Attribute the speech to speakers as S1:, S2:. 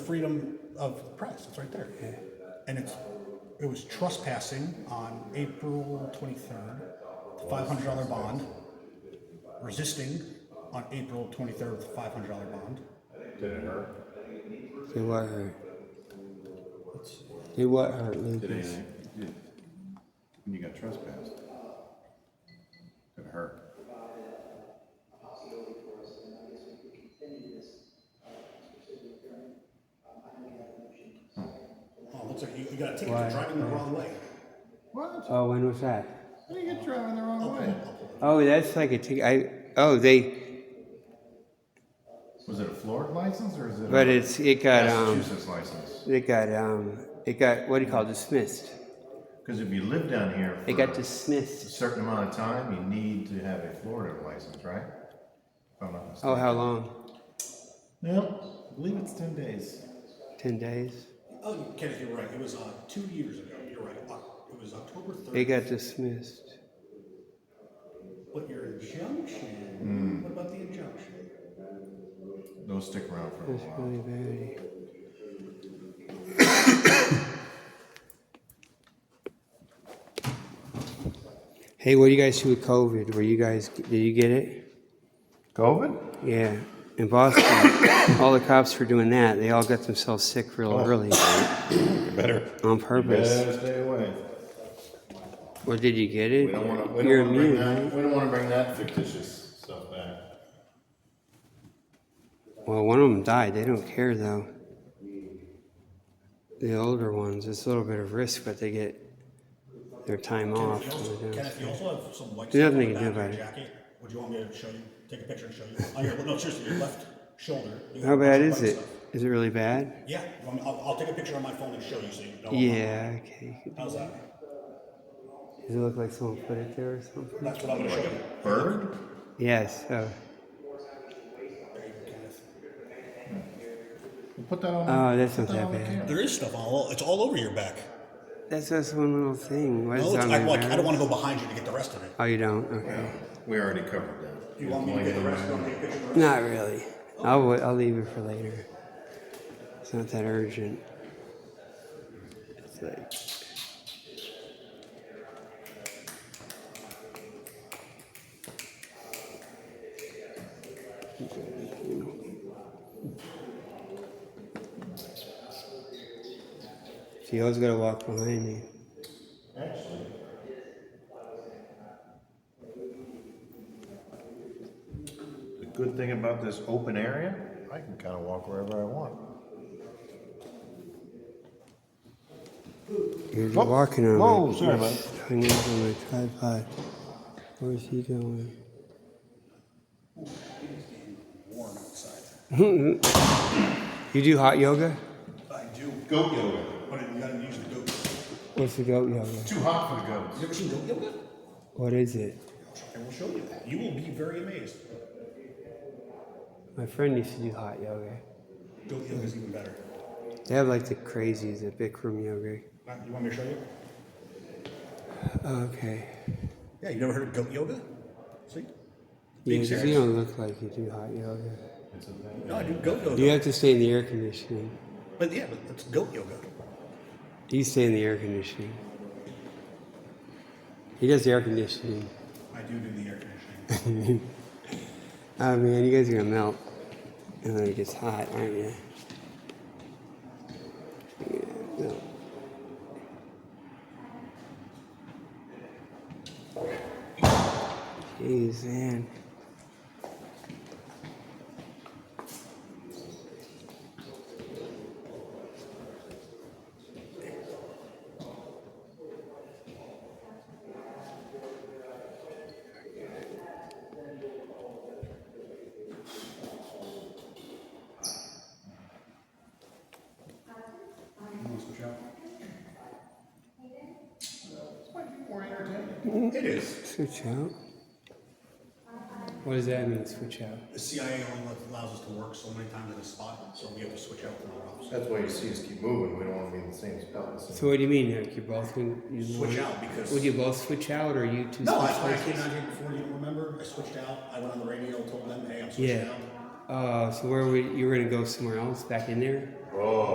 S1: freedom of press. It's right there. And it's it was trespassing on April 23rd, the $500 bond. Resisting on April 23rd, the $500 bond.
S2: Did it hurt?
S3: Did what hurt? Did what hurt,
S2: Did
S3: Lucas?
S2: anything? Did- When you got trespassed? Did it hurt?
S1: Oh, looks like you, you got a ticket
S3: Why?
S1: for driving the wrong way.
S2: What?
S3: Oh, when was that?
S2: How do you get driving the wrong way?
S3: Oh, that's like a ticket. I oh they,
S2: Was it a Florida license or is it?
S3: but
S2: a
S3: it's it got um
S2: Massachusetts license?
S3: it got um it got what do you call it, dismissed?
S2: Because if you live down here for
S3: It got
S2: a
S3: dismissed.
S2: certain amount of time, you need to have a Florida license, right? If I'm not
S3: Oh,
S2: mistaken.
S3: how long?
S2: Yep, I believe it's ten days.
S3: Ten days.
S1: Oh, Kenneth, you're right. It was uh, two years ago. You're right. Oc- It was October 3rd.
S3: It got dismissed.
S1: But your injunction, what about the injunction?
S2: Those stick around for a
S3: That's
S2: while.
S3: really bad. Hey, what do you guys do with COVID? Were you guys did you get it?
S2: COVID?
S3: Yeah, in Boston, all the cops were doing that. They all got themselves sick real
S4: Oh.
S3: early
S4: Better.
S3: on purpose.
S2: Better stay away.
S3: Well, did you get it?
S4: We don't want to. We
S3: You're
S4: don't want to bring
S3: immune,
S4: that. We don't want to bring that fictitious stuff back.
S3: Well, one of them died. They don't care though. The older ones, it's a little bit of risk, but they get their time off.
S1: Kenneth, you
S3: when
S1: also-
S3: they don't.
S1: Kenneth, you also have some white
S3: There's
S1: stuff on
S3: nothing
S1: the
S3: you
S1: back
S3: can do
S1: of your
S3: about
S1: jacket. Would you want me to show you? Take a picture and show you? Oh, here, well, no, seriously, your left shoulder. you have
S3: How
S1: a bunch
S3: bad
S1: of
S3: is
S1: white
S3: it?
S1: stuff.
S3: Is it really bad?
S1: Yeah, you want me- I'll, I'll take a picture on my phone and show you so you know.
S3: Yeah. Okay.
S1: How's that?
S3: Does it look like someone put it there or something?
S1: That's what I'm gonna show you.
S2: Bird?
S3: Yes. Oh.
S1: There you go, Kenneth.
S2: We'll put that on.
S3: Oh, that's
S2: put
S3: not that
S2: on the
S3: bad.
S2: camera.
S1: There is stuff all, it's all over your back.
S3: That's just one little thing. What
S1: No,
S3: is
S1: it's,
S3: on
S1: I,
S3: my
S1: like, I
S3: back?
S1: don't wanna go behind you to get the rest of it.
S3: Oh, you don't. Okay.
S2: We already covered that.
S1: You want me to get the rest, you want me to take a picture of the rest?
S3: Not really. I'll wait, I'll leave it for later. It's not that urgent. It's like See, I was gonna walk behind me.
S2: Actually, the good thing about this open area, I can kind of walk wherever I want.
S3: You're
S2: Oh,
S3: walking on
S2: whoa,
S3: my,
S2: sorry, bud.
S3: hanging on my tripod. Where's he going?
S1: Warm outside.
S3: You do hot yoga?
S1: I do,
S2: Goat yoga.
S1: but you gotta use the goat.
S3: What's the goat yoga?
S2: Too hot for the goats.
S1: You ever seen goat yoga?
S3: What is it?
S1: I will show you that. You will be very amazed.
S3: My friend used to do hot yoga.
S1: Goat yoga is even better.
S3: They have like the crazies, the Bikram yoga.
S1: Uh, You want me to show you?
S3: Okay.
S1: Yeah, you never heard of goat yoga? See?
S3: Yeah,
S1: Big
S3: 'cause
S1: chairs.
S3: you don't look like you do hot yoga.
S1: No, I do goat yoga.
S3: You have to stay in the air conditioning.
S1: But yeah, but it's goat yoga.
S3: You stay in the air conditioning. He does the air conditioning.
S1: I do do the air conditioning.
S3: Oh man, you guys are gonna melt. And then it gets hot, aren't you? Yeah, no. Jeez, man.
S1: it is.
S3: Switch out. What does that mean, switch out?
S1: The CIA only allows us to work so many times in a spot, so we have to switch out from our office.
S2: That's why you see us keep moving. We don't want to be in the same spot. the same-
S3: So what do you mean, like you both would, you
S1: Switch out because.
S3: Would you both switch out or you two
S1: no,
S3: switch
S1: that's why I
S3: places?
S1: came down here before. You remember? I switched out. I went on the radio, told them, "Hey, I'm switching
S3: Yeah. Uh, so where would you were gonna go somewhere else back in there?
S1: out."